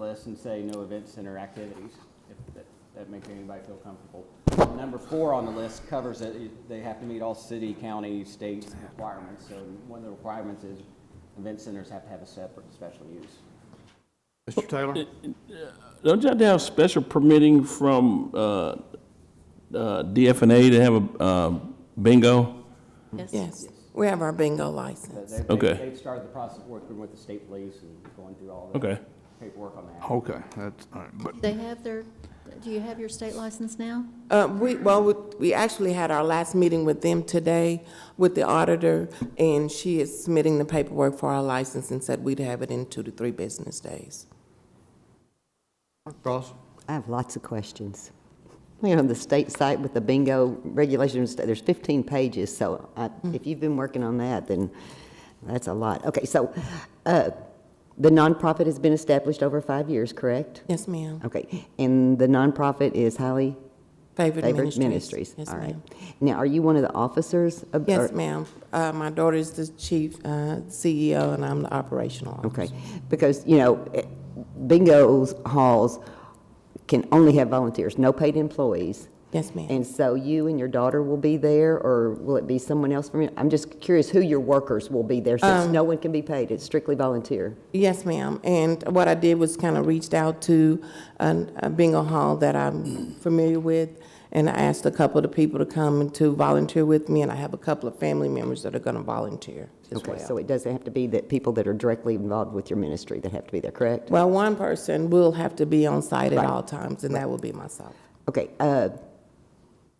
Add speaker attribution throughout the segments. Speaker 1: list and say no event center activities, if that, that makes anybody feel comfortable. Number four on the list covers that it- they have to meet all city, county, state requirements. So one of the requirements is event centers have to have a separate special use.
Speaker 2: Mr. Taylor?
Speaker 3: Don't you have to have special permitting from uh, uh, DFNA to have a uh, bingo?
Speaker 4: Yes, we have our bingo
Speaker 1: But
Speaker 4: license.
Speaker 1: they- they-
Speaker 3: Okay.
Speaker 1: They've started the process of working with the state police and going through all the
Speaker 3: Okay.
Speaker 1: paperwork on that.
Speaker 2: Okay, that's, all right, but
Speaker 5: They have their, do you have your state license now?
Speaker 4: Uh, we, well, we- we actually had our last meeting with them today with the auditor, and she is submitting the paperwork for our license and said we'd have it in two to three business days.
Speaker 2: Ross?
Speaker 6: I have lots of questions. You know, the state site with the bingo regulations, there's 15 pages, so I-
Speaker 4: Hmm.
Speaker 6: if you've been working on that, then that's a lot. Okay, so uh, the nonprofit has been established over five years, correct?
Speaker 4: Yes, ma'am.
Speaker 6: Okay, and the nonprofit is highly
Speaker 4: Favorite
Speaker 6: favored
Speaker 4: Ministries.
Speaker 6: ministries?
Speaker 4: Yes,
Speaker 6: All right.
Speaker 4: ma'am.
Speaker 6: Now, are you one of the officers? of-
Speaker 4: Yes,
Speaker 6: or-
Speaker 4: ma'am. Uh, my daughter is the chief, uh, CEO, and I'm the operational officer.
Speaker 6: Okay, because, you know, eh, bingo halls can only have volunteers, no paid employees.
Speaker 4: Yes, ma'am.
Speaker 6: And so you and your daughter will be there, or will it be someone else from you? I'm just curious who your workers will be there, since
Speaker 4: Um,
Speaker 6: no one can be paid, it's strictly volunteer.
Speaker 4: Yes, ma'am. And what I did was kind of reached out to an- a bingo hall that I'm familiar with, and I asked a couple of the people to come and to volunteer with me, and I have a couple of family members that are going to volunteer as
Speaker 6: Okay, so
Speaker 4: well.
Speaker 6: it doesn't have to be that people that are directly involved with your ministry that have to be there, correct?
Speaker 4: Well, one person will have to be on site at all times, and that will be myself.
Speaker 6: Okay, uh,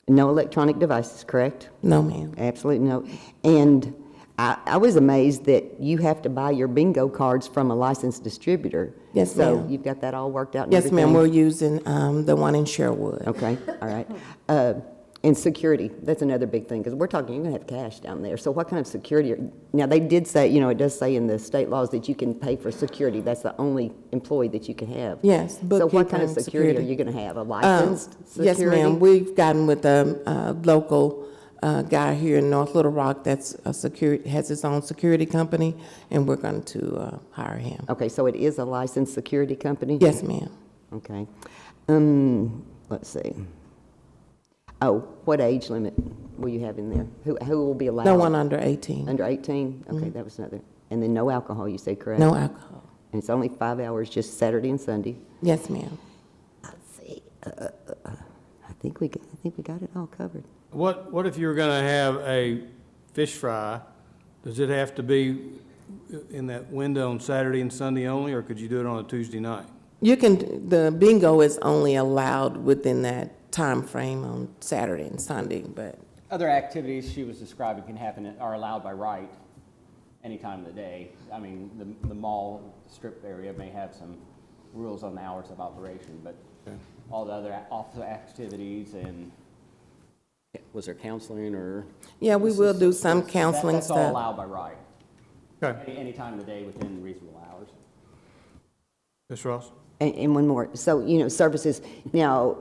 Speaker 6: no electronic devices, correct?
Speaker 4: No, ma'am.
Speaker 6: Absolutely no. And I, I was amazed that you have to buy your bingo cards from a licensed distributor.
Speaker 4: Yes,
Speaker 6: So
Speaker 4: ma'am.
Speaker 6: you've got that all worked out and
Speaker 4: Yes, ma'am,
Speaker 6: everything?
Speaker 4: we're using um, the one in Sherwood.
Speaker 6: Okay, all right. Uh, And security, that's another big thing, because we're talking, you're going to have cash down there. So what kind of security, are- now, they did say, you know, it does say in the state laws that you can pay for security. That's the only employee that you can have.
Speaker 4: Yes,
Speaker 6: So what kind of
Speaker 4: bookkeeping,
Speaker 6: security are
Speaker 4: security.
Speaker 6: you going to have? A
Speaker 4: Um,
Speaker 6: licensed
Speaker 4: Yes,
Speaker 6: security?
Speaker 4: ma'am. We've gotten with a uh, local uh, guy here in North Little Rock that's a security, has his own security company, and we're going to uh, hire him.
Speaker 6: Okay, so it is a licensed security company?
Speaker 4: Yes, ma'am.
Speaker 6: Okay. Um, let's see. Oh, what age limit will you have in there? Who, who will be allowed?
Speaker 4: No one under 18.
Speaker 6: Under 18? Okay, that was another. And then no alcohol, you said, correct?
Speaker 4: No alcohol.
Speaker 6: And it's only five hours, just Saturday and Sunday?
Speaker 4: Yes, ma'am.
Speaker 6: Let's see. Uh, uh, uh, I think we, got- I think we got it all covered.
Speaker 7: What, what if you were gonna have a fish fry? Does it have to be in that window on Saturday and Sunday only, or could you do it on a Tuesday night?
Speaker 4: You can, the bingo is only allowed within that time frame on Saturday and Sunday, but
Speaker 1: Other activities she was describing can happen, are allowed by right any time of the day. I mean, the, the mall strip area may have some rules on the hours of operation, but all the other office activities and, was there counseling or?
Speaker 4: yeah, we will do some
Speaker 1: That-
Speaker 4: counseling
Speaker 1: That's all
Speaker 4: stuff.
Speaker 1: allowed by right,
Speaker 7: Okay,
Speaker 1: any, any time of the day within reasonable hours.
Speaker 7: Ms. Ross?
Speaker 6: And, and one more. So, you know, services, now,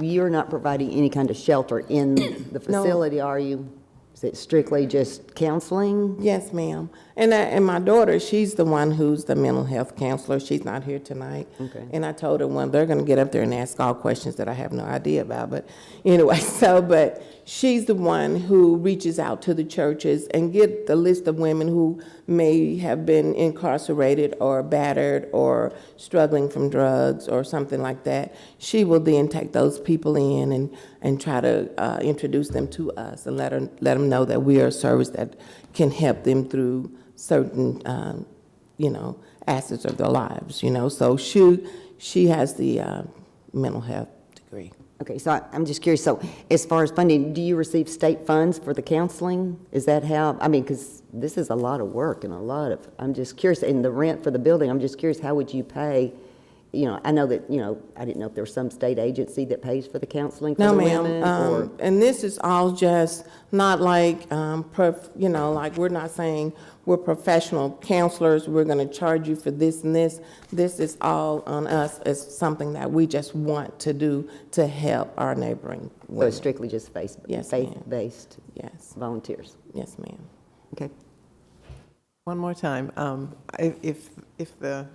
Speaker 6: you're not providing any kind of shelter in the facility, are you? Is it strictly just counseling?
Speaker 4: Yes, ma'am. And I, and my daughter, she's the one who's the mental health counselor. She's not here tonight.
Speaker 6: Okay.
Speaker 4: And I told her, well, they're gonna get up there and ask all questions that I have no idea about, but anyway, so, but she's the one who reaches out to the churches and get the list of women who may have been incarcerated or battered or struggling from drugs or something like that. She will then take those people in and, and try to, uh, introduce them to us and let her, let them know that we are a service that can help them through certain, um, you know, assets of their lives, you know. So she, she has the uh, mental health degree.
Speaker 6: Okay, so I- I'm just curious, so as far as funding, do you receive state funds for the counseling? Is that how, I mean, because this is a lot of work and a lot of, I'm just curious, and the rent for the building, I'm just curious, how would you pay? You know, I know that, you know, I didn't know if there was some state agency that pays for the counseling for
Speaker 4: No,
Speaker 6: the
Speaker 4: ma'am.
Speaker 6: women, or-
Speaker 4: Um, and this is all just not like, um, prof, you know, like we're not saying we're professional counselors. We're going to charge you for this and this. This is all on us. It's something that we just want to do to help our neighboring
Speaker 6: So
Speaker 4: women.
Speaker 6: it's strictly just faith-
Speaker 4: Yes, ma'am.
Speaker 6: faith-based
Speaker 4: Yes,
Speaker 6: volunteers?
Speaker 4: yes, ma'am.
Speaker 6: Okay.
Speaker 8: One more time, um, if, if, if the